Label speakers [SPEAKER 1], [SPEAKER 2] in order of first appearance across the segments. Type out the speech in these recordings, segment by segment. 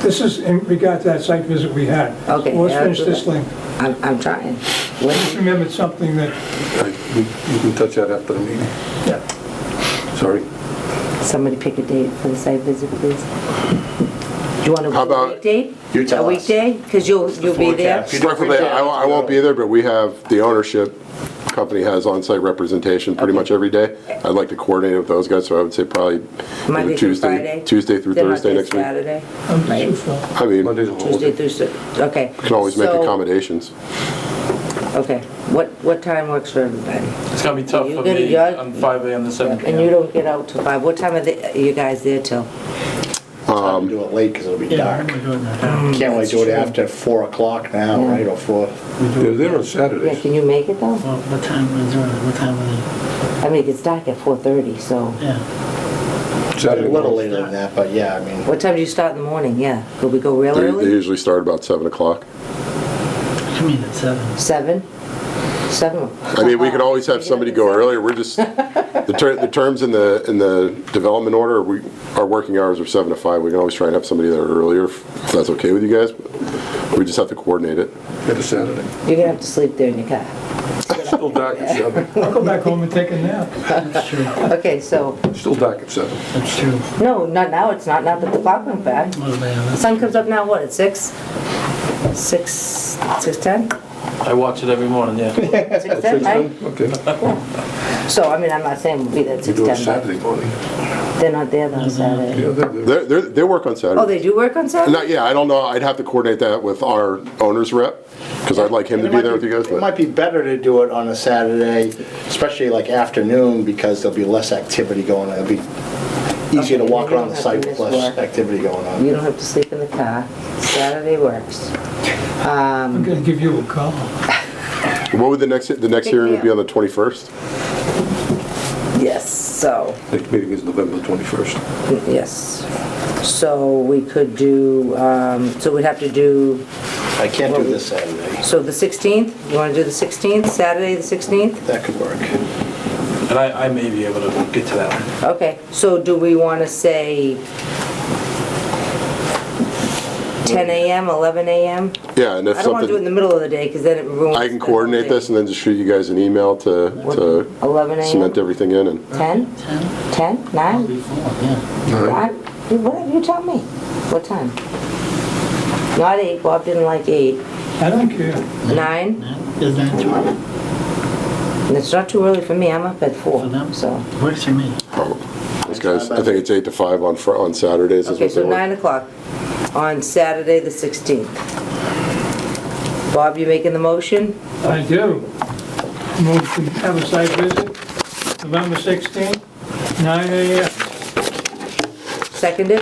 [SPEAKER 1] This is in regard to that site visit we had.
[SPEAKER 2] Okay,
[SPEAKER 1] So Let's
[SPEAKER 2] yeah,
[SPEAKER 1] finish
[SPEAKER 2] do
[SPEAKER 1] this
[SPEAKER 2] that.
[SPEAKER 1] link.
[SPEAKER 2] I'm, I'm trying.
[SPEAKER 1] Just
[SPEAKER 2] When,
[SPEAKER 1] remembered something that,
[SPEAKER 3] I- we- You can touch that after the meeting. Sorry.
[SPEAKER 2] somebody pick a date for the site visit, please. Do you want to
[SPEAKER 4] How
[SPEAKER 2] do a
[SPEAKER 4] about
[SPEAKER 2] weekday?
[SPEAKER 4] you tell
[SPEAKER 2] A
[SPEAKER 4] us.
[SPEAKER 2] weekday? Because you'll, you'll be there?
[SPEAKER 4] Preferably, I won't I won't be there, but we have, the ownership company has on-site representation pretty much every day. I'd like to coordinate with those guys, so I would say probably
[SPEAKER 2] Monday through
[SPEAKER 4] either Tuesday,
[SPEAKER 2] Friday?
[SPEAKER 4] Tuesday through
[SPEAKER 2] Then not
[SPEAKER 4] Thursday
[SPEAKER 2] this
[SPEAKER 4] next week.
[SPEAKER 2] Saturday?
[SPEAKER 1] I'm too
[SPEAKER 2] Right.
[SPEAKER 1] far.
[SPEAKER 4] I mean,
[SPEAKER 3] Monday's
[SPEAKER 4] you
[SPEAKER 3] a
[SPEAKER 2] Tuesday
[SPEAKER 3] holiday.
[SPEAKER 2] through, Sat- okay.
[SPEAKER 4] can always make
[SPEAKER 2] So-
[SPEAKER 4] accommodations.
[SPEAKER 2] Okay, what, what time works for everybody?
[SPEAKER 5] It's gonna be tough
[SPEAKER 2] You
[SPEAKER 5] for
[SPEAKER 2] gotta
[SPEAKER 5] me
[SPEAKER 2] judge-
[SPEAKER 5] on five AM to seven
[SPEAKER 2] And you don't get out till five, what time are the- are you guys there till?
[SPEAKER 6] Time to do it late because it'll be
[SPEAKER 7] Yeah,
[SPEAKER 6] dark.
[SPEAKER 7] we're doing that.
[SPEAKER 6] Can't really do it after four o'clock now, right, or four?
[SPEAKER 3] They're there on
[SPEAKER 2] Yeah,
[SPEAKER 3] Saturdays.
[SPEAKER 2] can you make it though?
[SPEAKER 7] Well, what time was it, what time was
[SPEAKER 2] I mean, it's dark at four thirty, so.
[SPEAKER 7] it? Yeah,
[SPEAKER 6] A
[SPEAKER 3] Saturday
[SPEAKER 6] little
[SPEAKER 3] morning.
[SPEAKER 6] later than that, but yeah, I mean,
[SPEAKER 2] What time do you start in the morning? Yeah, could we go real
[SPEAKER 4] They they
[SPEAKER 2] early?
[SPEAKER 4] usually start about 7 o'clock.
[SPEAKER 7] I mean, at seven.
[SPEAKER 2] Seven? Seven?
[SPEAKER 4] I mean, we could always have somebody go earlier, we're just, the ter, the terms in the, in the development order, we, our working hours are seven to five, we can always try and have somebody there earlier, if that's okay with you guys, we just have to coordinate it.
[SPEAKER 3] It's Saturday.
[SPEAKER 2] You're gonna have to sleep there in your car.
[SPEAKER 3] Still dark at seven.
[SPEAKER 1] I'll go back home and take a nap.
[SPEAKER 7] That's true,
[SPEAKER 2] Okay, so,
[SPEAKER 3] Still dark at seven.
[SPEAKER 7] that's true.
[SPEAKER 2] no, not now, it's not, not that the clock went back.
[SPEAKER 7] What about us?
[SPEAKER 2] Sun comes up now, what, at six? Six, six ten?
[SPEAKER 5] I watch it every morning, yeah.
[SPEAKER 2] Six ten, right?
[SPEAKER 3] Okay.
[SPEAKER 2] So, I mean, I'm not saying we'll be there at
[SPEAKER 3] You
[SPEAKER 2] six
[SPEAKER 3] do it
[SPEAKER 2] ten,
[SPEAKER 3] Saturday morning.
[SPEAKER 2] but they're not there on Saturday.
[SPEAKER 3] Yeah, they're there.
[SPEAKER 4] They're, they're, they work on
[SPEAKER 2] Oh,
[SPEAKER 4] Saturday.
[SPEAKER 2] they do work on Saturday?
[SPEAKER 4] Not, yeah, I don't know, I'd have to coordinate that with our owner's rep, because I'd like him to
[SPEAKER 6] It
[SPEAKER 4] be
[SPEAKER 6] might
[SPEAKER 4] there with you guys,
[SPEAKER 6] It
[SPEAKER 4] but
[SPEAKER 6] might be better to do it on a Saturday, especially like afternoon, because there'll be less activity going on. It'll be easier to
[SPEAKER 2] Okay,
[SPEAKER 6] walk
[SPEAKER 2] you
[SPEAKER 6] around
[SPEAKER 2] don't
[SPEAKER 6] the
[SPEAKER 2] have
[SPEAKER 6] site
[SPEAKER 2] to
[SPEAKER 6] with
[SPEAKER 2] miss
[SPEAKER 6] less
[SPEAKER 2] work.
[SPEAKER 6] activity going on.
[SPEAKER 2] You don't have to sleep in the car. Saturday works.
[SPEAKER 1] I'm gonna give you a call.
[SPEAKER 4] what would the next, the next
[SPEAKER 2] Big
[SPEAKER 4] hearing would be
[SPEAKER 2] deal.
[SPEAKER 4] on the twenty-first?
[SPEAKER 2] Yes, so,
[SPEAKER 3] Next meeting is November 21st.
[SPEAKER 2] yes. So we could do, um, so we'd have to do,
[SPEAKER 6] I can't do this Saturday.
[SPEAKER 2] so the 16th? You want to do the 16th, Saturday the 16th?
[SPEAKER 6] That could work.
[SPEAKER 5] And I, I may be able to get to that one.
[SPEAKER 2] Okay, so do we want to say 10 a.m., 11 a.m.?
[SPEAKER 4] Yeah, and if
[SPEAKER 2] I don't want to do it in
[SPEAKER 4] something,
[SPEAKER 2] the middle of the day because then it ruins.
[SPEAKER 4] I can
[SPEAKER 2] the whole
[SPEAKER 4] coordinate
[SPEAKER 2] thing.
[SPEAKER 4] this and then just shoot you guys an email to, to
[SPEAKER 2] 11 a.m.?
[SPEAKER 4] cement everything in and.
[SPEAKER 2] 10?
[SPEAKER 7] Ten,
[SPEAKER 2] 10?
[SPEAKER 7] Well,
[SPEAKER 2] 9?
[SPEAKER 7] before, yeah.
[SPEAKER 2] I- you- Whatever you tell me. What time? Not 8, Bob didn't like 8.
[SPEAKER 1] I don't care.
[SPEAKER 2] 9?
[SPEAKER 7] Nine, is that too early
[SPEAKER 2] It's not too early for me, I'm up at
[SPEAKER 7] for
[SPEAKER 2] 4,
[SPEAKER 7] them?
[SPEAKER 2] so.
[SPEAKER 7] Works for me.
[SPEAKER 4] Those guys, I think it's eight to five on Fri- on Saturdays is
[SPEAKER 2] Okay,
[SPEAKER 4] what they
[SPEAKER 2] so
[SPEAKER 4] work.
[SPEAKER 2] 9 o'clock on Saturday, the 16th. Bob, you making the motion?
[SPEAKER 1] I do. Move to have a site visit, November 16th, 9 AM.
[SPEAKER 2] Seconded?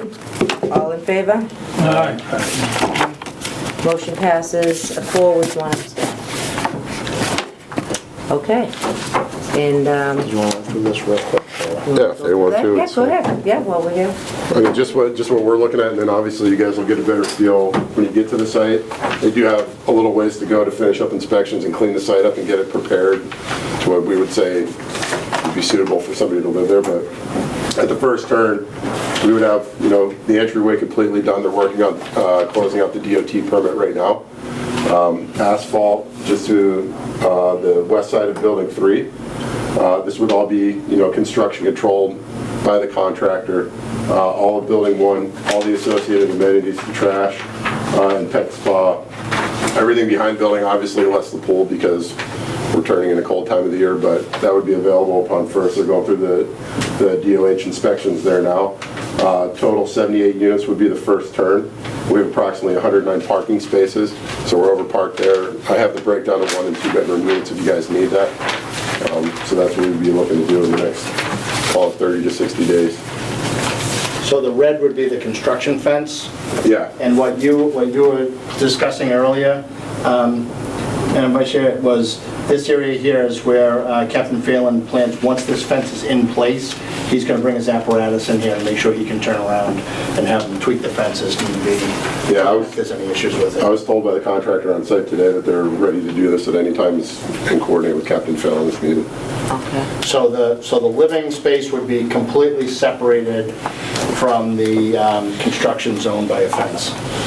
[SPEAKER 2] All in favor?
[SPEAKER 1] All right.
[SPEAKER 2] Motion passes, a four with one abstain. Okay, and, um...
[SPEAKER 6] You want to do this real quick? or-
[SPEAKER 2] you
[SPEAKER 4] Yeah, if they want to,
[SPEAKER 2] Yeah,
[SPEAKER 4] it's
[SPEAKER 2] go
[SPEAKER 4] fine.
[SPEAKER 2] ahead, yeah, while we're here.
[SPEAKER 4] I mean, just what, just what we're looking at, and then obviously you guys will get a better feel when you get to the site. They do have a little ways to go to finish up inspections and clean the site up and get it prepared to what we would say would be suitable for somebody to live there, but at the first turn, we would have, you know, the entryway completely done, they're working on, uh, closing out the DOT permit right now. Um, Asphalt just to, uh, the west side of building three. Uh, This would all be, you know, construction controlled by the contractor. Uh, All of Building 1, all the associated amenities, the trash uh, and pet spa, everything behind building, obviously less the pool because we're turning in a cold time of the year, but that would be available upon first, they're going through the, the DOH inspections there now. Uh, Total 78 units would be the first turn. We have approximately 109 parking spaces, so we're over parked there. I have the breakdown of one and two bedroom units if you guys need that. Um, So that's what we'd be looking to do in the next, call it 30 to 60 days.
[SPEAKER 6] So the red would be the construction fence?
[SPEAKER 4] Yeah,
[SPEAKER 6] And what you, what you were discussing earlier, um, Madam Vice Chair, was This area here is where uh, Captain Phelan plans, once this fence is in place, he's going to bring his apparatus in here and make sure he can turn around and have them tweak the fence as need be.
[SPEAKER 4] Yeah, I was-
[SPEAKER 6] If there's any issues with
[SPEAKER 4] I
[SPEAKER 6] it.
[SPEAKER 4] was told by the contractor on site today that they're ready to do this at any time and coordinate with Captain Fallon if needed.
[SPEAKER 2] Okay.
[SPEAKER 6] So the, so the living space would be completely separated from the um, construction zone by a fence.